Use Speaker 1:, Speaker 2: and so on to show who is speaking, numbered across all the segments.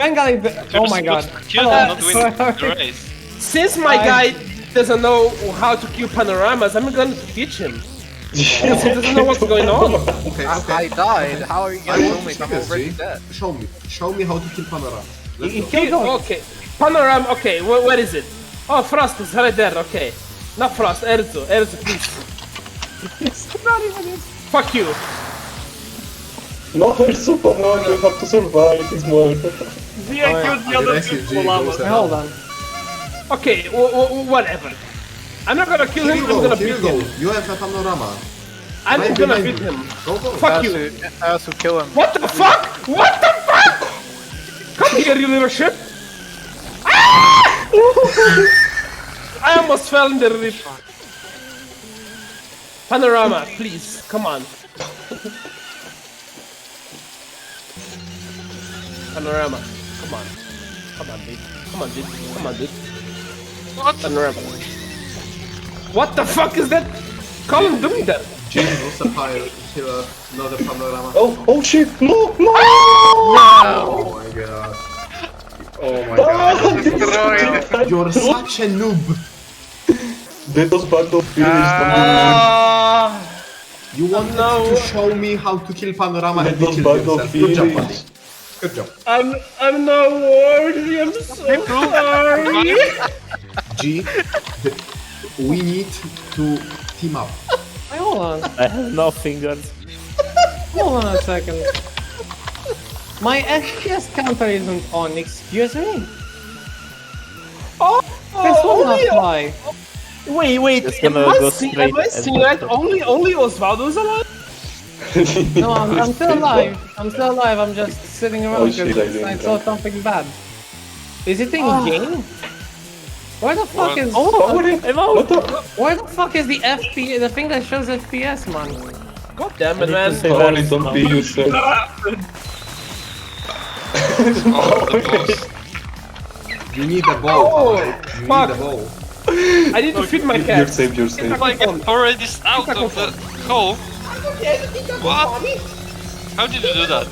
Speaker 1: Bengali. Oh my god.
Speaker 2: Kill
Speaker 1: Hello.
Speaker 2: them, not win the
Speaker 1: Sorry.
Speaker 2: race.
Speaker 3: Since my guy doesn't know how to kill panoramas, I'm going to teach him. Since he doesn't know what's going on.
Speaker 4: Okay,
Speaker 5: I
Speaker 4: okay.
Speaker 5: died. How are you
Speaker 4: I
Speaker 5: gonna kill
Speaker 4: want to
Speaker 5: me?
Speaker 4: see
Speaker 5: I'm
Speaker 4: this,
Speaker 5: already
Speaker 4: see?
Speaker 5: dead.
Speaker 4: Show me. Show me how to kill Panera. Let's
Speaker 1: He
Speaker 4: go.
Speaker 1: killed him.
Speaker 3: Okay. Panorama, okay, wh- where is it? Oh, Frost is right there, okay. Not Frost, Erzu. Erzu, please.
Speaker 1: Not even it.
Speaker 3: Fuck you.
Speaker 6: No, it's super Mario, you have to survive this Mario.
Speaker 7: Yeah, killed the other
Speaker 4: Aggressive
Speaker 7: two
Speaker 4: G,
Speaker 7: llamas.
Speaker 4: goes out.
Speaker 1: Hold on.
Speaker 3: Okay, w- w- whatever. I'm not gonna kill
Speaker 4: Here
Speaker 3: him,
Speaker 4: you
Speaker 3: I'm
Speaker 4: go,
Speaker 3: gonna
Speaker 4: here
Speaker 3: beat
Speaker 4: you go.
Speaker 3: him.
Speaker 4: You have a panorama.
Speaker 3: I'm
Speaker 4: Right
Speaker 3: gonna
Speaker 4: behind
Speaker 3: beat
Speaker 4: you.
Speaker 3: him.
Speaker 4: Go, go.
Speaker 3: Fuck you.
Speaker 5: Asu, Asu, kill him.
Speaker 3: What the fuck? What the fuck? Come here, you little shit. Ah! I almost fell in the rip. Panorama, please, come on. Panorama, come on. Come on, dude. Come on, dude. Come on, dude. What? Panorama. What the fuck is that? Colin doing that?
Speaker 4: Jim was a fire killer, not a panorama.
Speaker 6: Oh, oh shit, no, no!
Speaker 4: Oh my god. Oh my god.
Speaker 6: Ah, this is-
Speaker 4: You're such a noob.
Speaker 6: They just back up finish
Speaker 3: Ah,
Speaker 4: You want
Speaker 3: No.
Speaker 4: to show me how to kill panorama
Speaker 6: They
Speaker 4: and you
Speaker 6: just
Speaker 4: killed
Speaker 6: back up
Speaker 4: yourself. Good job, buddy.
Speaker 6: finish.
Speaker 4: Good job.
Speaker 3: I'm I'm not worthy. I'm so sorry.
Speaker 4: G, we need to team up.
Speaker 1: Hey, Hold on.
Speaker 8: I have no fingers.
Speaker 1: Hold on a second. My FPS counter isn't on. Excuse me.
Speaker 3: Oh,
Speaker 1: This will not
Speaker 3: only,
Speaker 1: fly.
Speaker 3: wait, wait.
Speaker 8: Just
Speaker 3: Am
Speaker 8: gonna
Speaker 3: I,
Speaker 8: go
Speaker 3: see,
Speaker 8: straight
Speaker 3: am I
Speaker 8: and-
Speaker 3: seeing right? Only only Osvaldo's alive.
Speaker 1: No, I'm, I'm still alive. I'm still alive. I'm just sitting around
Speaker 6: Oh, shit, I
Speaker 1: because
Speaker 6: didn't
Speaker 1: I saw
Speaker 6: drink.
Speaker 1: something bad. Is it in game? Where the fuck is
Speaker 8: I'm out.
Speaker 6: What the?
Speaker 1: where the fuck is the FP the thing that shows FPS man?
Speaker 3: God damn it,
Speaker 8: to
Speaker 3: man.
Speaker 8: say-
Speaker 6: Holy, don't be useless.
Speaker 2: Oh, the boss.
Speaker 4: You need a bow.
Speaker 3: Oh,
Speaker 4: Alright, you
Speaker 3: fuck.
Speaker 4: need a bow.
Speaker 3: I need to feed my
Speaker 6: You're
Speaker 3: cat.
Speaker 6: safe, you're safe.
Speaker 2: Like, I'm already out of the hole. What? How did you do that?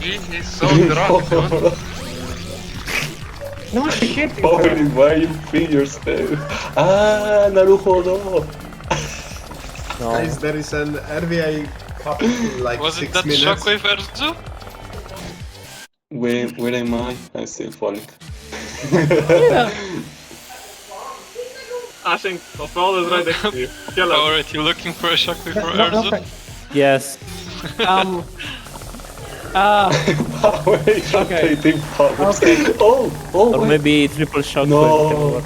Speaker 2: He is so drunk, dude.
Speaker 1: No shit.
Speaker 6: Holy, why you feel yourself? Ah, Naruto, no!
Speaker 4: Guys, there is an RVI cup in like
Speaker 2: Was it
Speaker 4: six
Speaker 2: that
Speaker 4: minutes.
Speaker 2: shockwave Erzu?
Speaker 6: Where, where am I? I'm still falling.
Speaker 7: I think Osvaldo is right next to you. Kill him.
Speaker 2: Alright, you looking for a shockwave for
Speaker 1: No, no,
Speaker 2: Erzu?
Speaker 8: Yes.
Speaker 1: Um uh
Speaker 6: Power,
Speaker 1: Okay.
Speaker 6: rotating powers.
Speaker 1: Okay.
Speaker 6: Oh, oh,
Speaker 8: Or
Speaker 6: wait.
Speaker 8: maybe triple shock.
Speaker 6: No.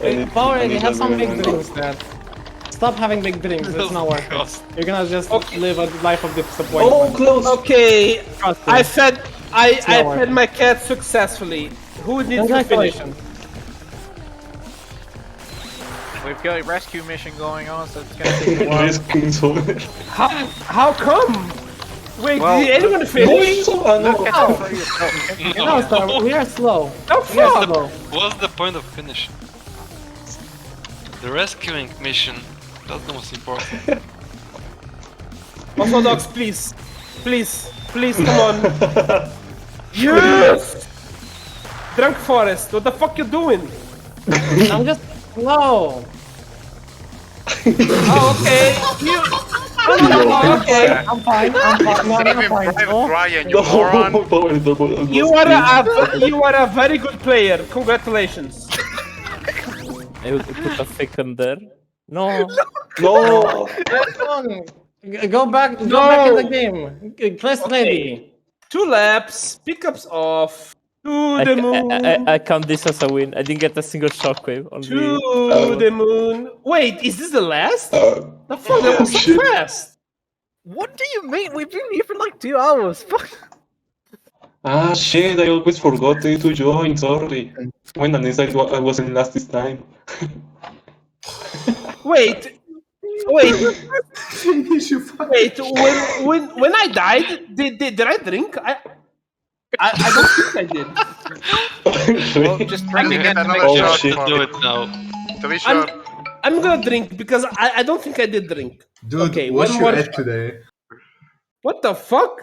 Speaker 6: I need-
Speaker 1: Power,
Speaker 6: I
Speaker 1: you
Speaker 6: need
Speaker 1: have some big
Speaker 6: another one.
Speaker 1: dreams there. Stop having big dreams, it's not
Speaker 2: Oh,
Speaker 1: worth it. You're gonna just live a life of disappointment.
Speaker 6: Oh, close!
Speaker 3: Okay,
Speaker 1: Trust me.
Speaker 3: I fed I I
Speaker 1: worth
Speaker 3: fed
Speaker 1: it.
Speaker 3: my cat successfully. Who needs to finish?
Speaker 1: Congratulations.
Speaker 5: We've got a rescue mission going on, so it's gonna take a while.
Speaker 6: Risk King's over.
Speaker 3: How how come? Wait,
Speaker 5: Well,
Speaker 3: did anyone
Speaker 6: No,
Speaker 3: finish?
Speaker 6: it's so- ah, no.
Speaker 1: You know, sir, we are slow.
Speaker 3: No
Speaker 1: We are
Speaker 3: fuck.
Speaker 1: slow.
Speaker 2: What's the point of finish? The rescuing mission. That's the most important.
Speaker 3: Orthodox, please, please, please, come on. Yes! Drunk Forest, what the fuck you doing?
Speaker 1: I'm just slow.
Speaker 3: Oh, okay. You... Oh, okay.
Speaker 1: I'm fine, I'm fine. No, I'm fine. No.
Speaker 9: Ryan,
Speaker 6: No, Power, double-
Speaker 3: You are a, a you are a very good player. Congratulations.
Speaker 8: I will put a fake there. No.
Speaker 6: No!
Speaker 1: Come on. G- Go back, go
Speaker 3: No.
Speaker 1: back in the game. G- Press ready.
Speaker 3: Two laps, pickups off. To
Speaker 8: I,
Speaker 3: the
Speaker 8: I,
Speaker 3: moon.
Speaker 8: I, I count this as a win. I didn't get a single shockwave.
Speaker 3: To
Speaker 8: Only
Speaker 3: the moon. Wait, is this the last?
Speaker 6: Uh,
Speaker 3: The fuck, that was so
Speaker 6: Shit.
Speaker 3: fast.
Speaker 5: What do you mean? We've been here for like two hours. Fuck.
Speaker 6: ah, shit, I always forgot to to join, sorry. When an inside wa- I was in last this time.
Speaker 3: Wait. Wait,
Speaker 4: Finish, you fuck.
Speaker 3: wait. When when when I died, did did, did I drink? I, I I don't think I did.
Speaker 5: Well, just drink
Speaker 2: Yeah,
Speaker 5: again to make
Speaker 6: Oh,
Speaker 2: You
Speaker 5: sure.
Speaker 2: have
Speaker 6: shit.
Speaker 2: to do it now.
Speaker 9: to be sure.
Speaker 3: I'm, I'm gonna drink because I, I don't think I did drink.
Speaker 4: Dude,
Speaker 3: Okay,
Speaker 4: what
Speaker 3: one
Speaker 4: you
Speaker 3: more
Speaker 4: had
Speaker 3: shot.
Speaker 4: today?
Speaker 3: What the fuck?